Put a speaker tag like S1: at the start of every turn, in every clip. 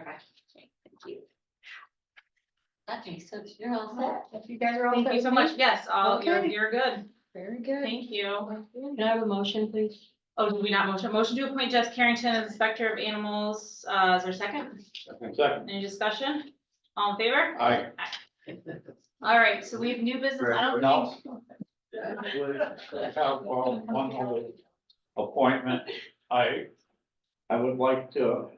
S1: Okay, thank you. Okay, so you're all set.
S2: If you guys are all.
S3: Thank you
S2: set
S3: so
S2: with me?
S3: much. Yes, all, you're,
S2: Okay.
S3: you're good.
S2: Very good.
S3: Thank you.
S1: Can I have a motion, please?
S3: Oh, did we not motion? Motion to appoint Jess Carrington as Inspector of Animals. Uh, is there a second?
S4: Second.
S3: Any discussion? All in favor?
S4: Aye.
S3: All right, so we have new business. I don't
S4: No.
S3: think.
S4: I have uh, one other appointment. I, I would like to,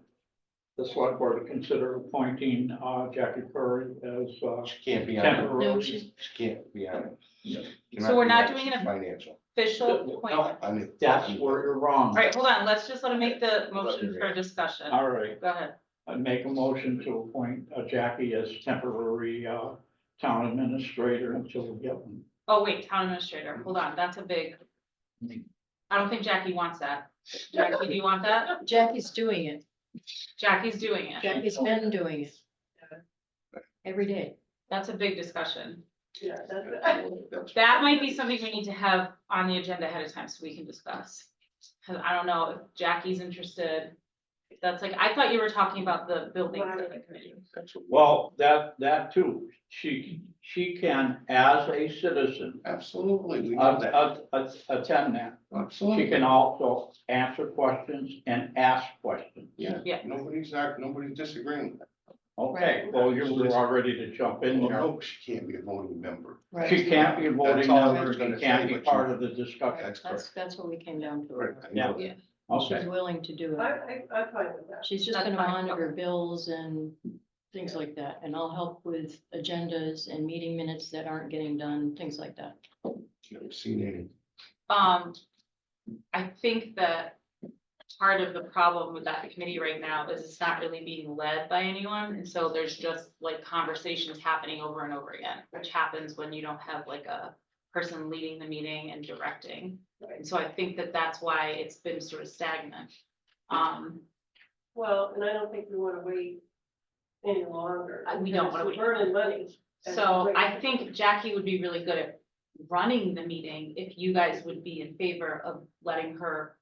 S4: the select board to consider appointing uh, Jackie Curry as uh,
S5: She can't be on it,
S1: No,
S4: temporary.
S1: she's-
S5: she can't be on it.
S3: So we're not doing
S5: it
S3: an
S5: Financial.
S3: Official appointment.
S5: I mean.
S4: That's where you're wrong.
S3: All right, hold on. Let's just let him make the motion for discussion.
S4: All right,
S3: Go ahead.
S4: I make a motion to appoint uh, Jackie as temporary uh, town administrator until we get one.
S3: Oh, wait, town administrator. Hold on. That's a big. I don't think Jackie wants that. Jackie, do you want that?
S2: Jackie's doing it.
S3: Jackie's doing it.
S2: Jackie's been doing it. Every day.
S3: That's a big discussion.
S5: That's-
S3: That might be something we need to have on the agenda ahead of time so we can discuss. Cause I don't know if Jackie's interested. That's like, I thought you were talking about the building committee.
S5: that's what-
S4: Well, that, that too, she, she can, as a citizen,
S5: Absolutely, we know
S4: att-
S5: that.
S4: att- att- attend that. Uh, She
S5: Absolutely.
S4: can also answer questions and ask questions.
S5: Yeah,
S3: Yeah.
S5: nobody's not, nobody's disagreeing with that.
S4: Okay, well, you were all ready to jump in
S5: Well,
S4: there.
S5: no, she can't be a voting member.
S4: She can't be a voting
S5: That's all I
S4: member,
S5: was gonna
S4: she can't
S5: say,
S4: be
S5: but you-
S4: part of the discussion.
S5: That's
S2: That's,
S5: correct.
S2: that's what we came down
S5: Right,
S2: to.
S5: I know
S3: Yeah.
S2: She's
S4: Okay,
S2: willing to do
S6: I,
S2: it.
S6: I, I'm fine with that.
S2: She's just
S3: That's
S2: gonna
S3: fine.
S2: monitor bills and things like that, and I'll help with agendas and meeting minutes that aren't getting done, things like that.
S5: that. I've seen any.
S3: Um, I think that part of the problem with that committee right now is it's not really being led by anyone. And so there's just like conversations happening over and over again, which happens when you don't have like a person leading the meeting and directing. And so I think that that's why it's been sort of stagnant. Um,
S6: Well, and I don't think we wanna wait any longer.
S3: I- we don't
S6: because
S3: wanna
S6: we're
S3: wait.
S6: Burning money. and
S3: So
S6: wait.
S3: I think Jackie would be really good at running the meeting if you guys would be in favor of letting her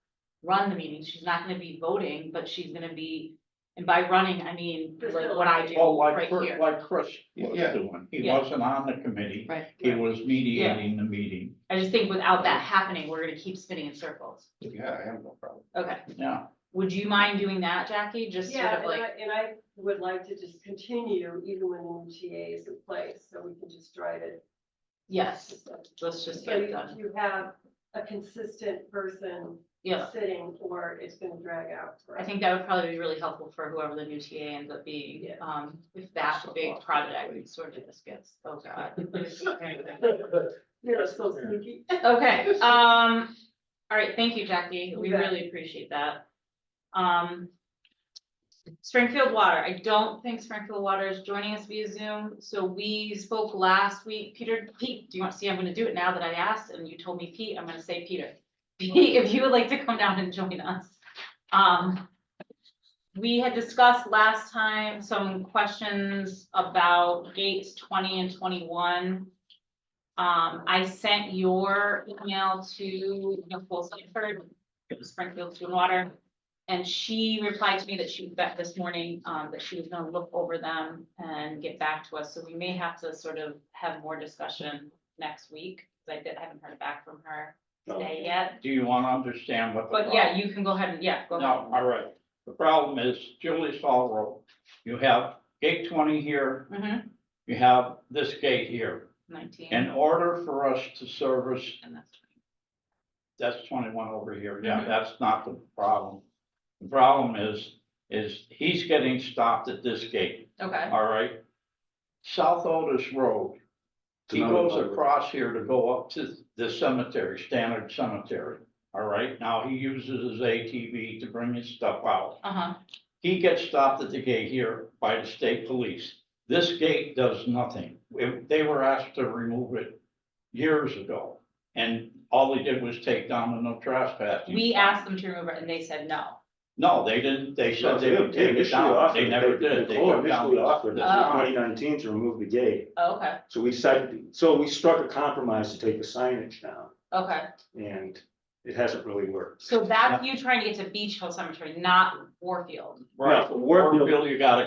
S3: run the meeting. She's not gonna be voting, but she's gonna be, and by running, I mean, like what I do
S4: well, like,
S3: right
S4: Chris-
S3: here.
S4: like Chris was
S5: Yeah.
S4: doing, he
S3: Yeah.
S4: wasn't on the committee,
S2: Right.
S4: he was mediating the meeting,
S3: I just think without that happening, we're gonna keep spinning in circles.
S5: Yeah, I have no problem.
S3: Okay,
S4: yeah.
S3: would you mind doing that, Jackie? Just sort
S6: Yeah,
S3: of
S6: and I,
S3: like,
S6: and I would like to just continue even when the new TA is in place, so we can just drive it.
S3: yes, let's just
S6: So
S3: get it
S6: you
S3: done.
S6: you have a consistent person
S3: Yeah,
S6: sitting, or it's gonna drag out.
S3: I
S6: forever.
S3: think that would probably be really helpful for whoever the new TA ends up being,
S6: Yeah.
S3: um, if that
S5: So
S3: big
S5: lost.
S3: project sort of just gets, oh god.
S6: You're so sneaky.
S3: Okay, um, all right, thank you, Jackie. We
S6: You bet.
S3: really appreciate that. Um. Springfield Water, I don't think Springfield Water is joining us via Zoom, so we spoke last week. Peter, Pete, do you want, see, I'm gonna do it now that I asked and you told me Pete, I'm gonna say Peter. Pete, if you would like to come down and join us. Um. We had discussed last time some questions about gates twenty and twenty-one. Um, I sent your email to Nicole Sanford, Springfield Sewer and Water. And she replied to me that she was back this morning, um, that she was gonna look over them and get back to us, so we may have to sort of have more discussion next week. 'cause I did- I haven't heard back from her today yet,
S4: Do you wanna understand what the
S3: but
S4: problem
S3: yeah, you can go ahead and, yeah, go ahead.
S4: No, all right. The problem is Julie Saw Road. You have gate twenty here,
S3: Mhm,
S4: you have this gate here.
S3: nineteen.
S4: In order for us to service,
S3: and that's-
S4: that's twenty-one over here. Yeah,
S3: Mhm.
S4: that's not the problem. The problem is, is he's getting stopped at this gate,
S3: Okay,
S4: all right? South Otis Road, he goes across here to go up to the cemetery, Standard Cemetery, all right? Now he uses his ATV to bring his stuff out.
S3: uh-huh,
S4: He gets stopped at the gate here by the state police. This gate does nothing. If- They were asked to remove it years ago. And all they did was take down the no trespassing.
S3: we asked them to remove it and they said no.
S4: No, they didn't. They said they would take it down. They never did. They
S7: Nicole
S4: took down
S7: initially
S4: the-
S7: offered in
S3: Oh.
S7: twenty nineteen to remove the gate,
S3: Okay,
S7: so we said, so we struck a compromise to take the signage down,
S3: okay.
S7: and it hasn't really worked.
S3: So that's you trying to get to Beach Hill Cemetery, not Warfield.
S4: Right.
S7: Now, Warfield-
S4: Warfield, you gotta